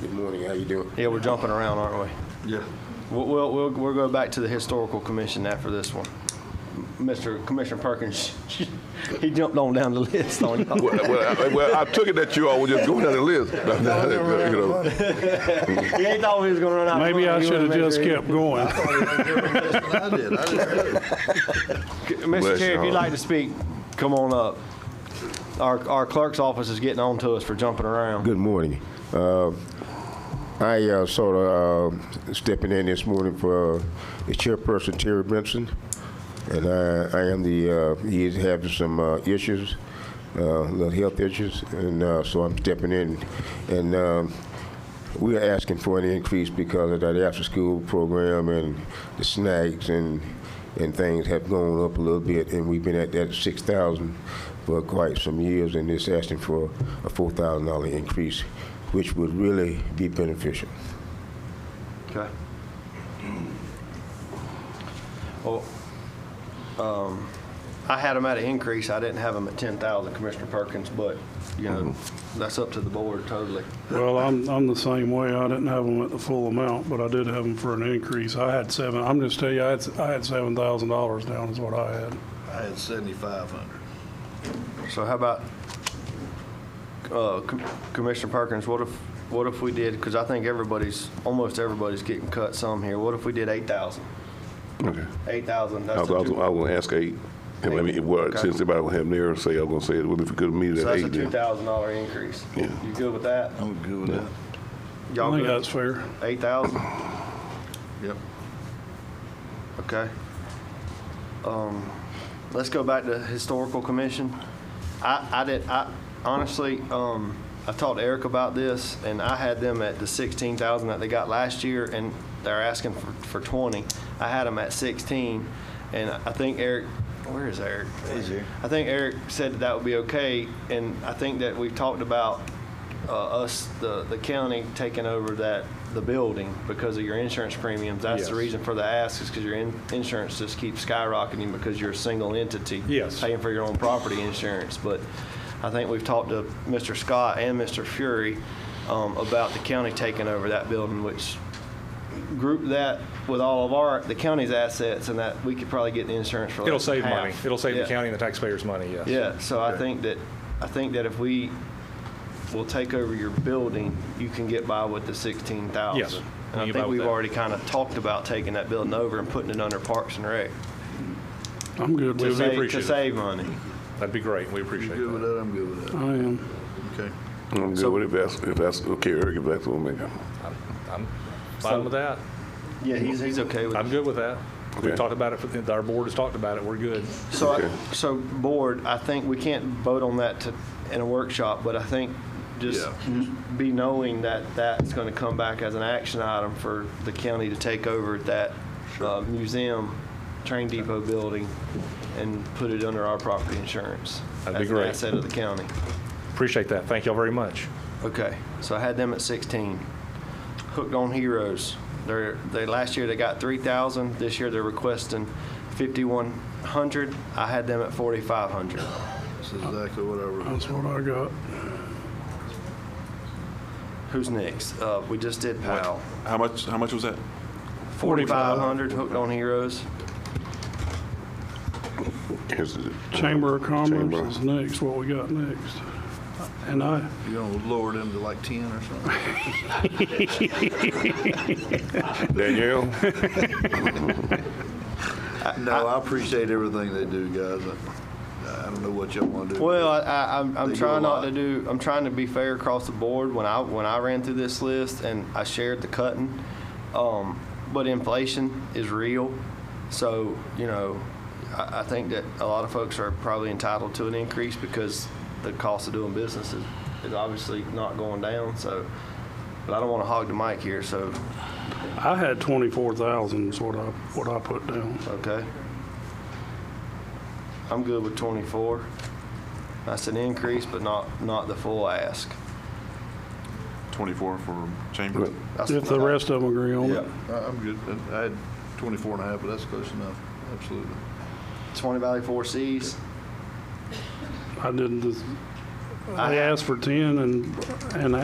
Good morning, how you doing? Yeah, we're jumping around, aren't Yeah. we? We'll, we'll, we'll, we'll go back to the historical commission after this one. Mr. Commissioner Perkins, he jumped on down the list on y'all. Well, well, I, well, I took it that you all were just going down the list. You know. He ain't thought he was gonna run out. of Maybe I money. He should have wanna make just sure he- kept going. I did, I did. Mr. Bless Chair, if your you'd heart. like to speak, come on up. Our, our clerk's office is getting on to us for jumping around. Good morning. Uh, I uh, sort of uh, stepping in this morning for uh, the chairperson Terry Benson, and I, I am the uh, he is having some uh, issues, uh, little health issues, and uh, so I'm stepping in, and um, we are asking for an increase because of that after-school program and the snacks and and things have gone up a little bit, and we've been at that six thousand for quite some years, and it's asking for a four thousand dollar increase, which would really be beneficial. Okay. Well, um, I had them at an increase. I didn't have them at ten thousand, Commissioner Perkins, but, you know, that's up to the board totally. Well, I'm, I'm the same way. I didn't have them at the full amount, but I did have them for an increase. I had seven, I'm just telling you, I had, I had seven thousand dollars down is what I had. I had seventy-five hundred. So how about, uh, Com- Commissioner Perkins, what if, what if we did, because I think everybody's, almost everybody's getting cut some here. What if we did eight thousand? Okay. Eight thousand, I that's was, a I was, two- I was gonna ask eight. And let me, well, Okay. since everybody will have theirs, say, I'm gonna say, it. well, if we could meet So at that's a eight two then. thousand dollar increase. Yeah. You good with that? I'm good with that. I Y'all think that's good? fair. Eight thousand? Yep. Okay. Um, Let's go back to Historical Commission. I, I did, I honestly, um, I talked to Eric about this, and I had them at the sixteen thousand that they got last year, and they're asking for, for twenty. I had them at sixteen, and I think Eric, where is Eric? He's here. I think Eric said that that would be okay, and I think that we've talked about uh, us, the, the county taking over that, the building because of your insurance premiums. That's the Yes. reason for the ask is because your in- insurance just keeps skyrocketing because you're a single entity. Yes. Paying for your own property insurance, but I think we've talked to Mr. Scott and Mr. Fury um, about the county taking over that building, which group that with all of our, the county's assets and that we could probably get the insurance for like It'll save money. half. It'll save the Yeah. county and the taxpayers money, yes. Yeah, so I think that, I think that if we will take over your building, you can get by with the sixteen thousand. Yes, you And can I get by think with we've that. already kind of talked about taking that building over and putting it under Parks and Rec. I'm good to with Just- it. save- be To appreciative. save money. That'd be great. We You appreciate good with that. that? I'm good with that. I am. Okay. I'm good with it, if that's, if that's, okay, Eric, if that's what we make. I'm fine with that. Yeah, he's, he's okay with it. I'm good with that. We've Okay. talked about it, for- our board has talked about it. We're good. So, Okay. I- so board, I think we can't vote on that to, in a workshop, but I think just be knowing that that's going to come back as an action item for the county to take over that uh, museum, train depot building, and put it under our property insurance. That'd be As an great. asset of the county. Appreciate that. Thank y'all very much. Okay, so I had them at 16. Hooked on Heroes. They're, they, last year they got 3,000. This year they're requesting 5,100. I had them at 4,500. That's exactly what I wrote. That's what I got. Who's next? Uh, we just did Powell. How much, how much was that? 4,500 hooked on heroes. Here's the- Chamber of Commerce Chamber. is next, what we got next. And I, You gonna lower them to like ten or something? Danielle, No, I appreciate everything they do, guys. I I don't know what y'all wanna do. Well, I, I, I'm, They I'm do trying a not lot. to do. I'm trying to be fair across the board. When I when I ran through this list and I shared the cutting, um, but inflation is real. So you know, I, I think that a lot of folks are probably entitled to an increase because the cost of doing business is, is obviously not going down. So, but I don't want to hog the mic here. So I had twenty-four thousand is what I, what I put down. Okay. I'm good with 24. That's an increase, but not, not the full ask. 24 for chamber? That's- If the rest of them agree on Yeah, it. I- I'm good. I had twenty-four and a half, but that's close enough. Absolutely. 20 Valley Four Cs. I didn't, I- I asked for ten and, and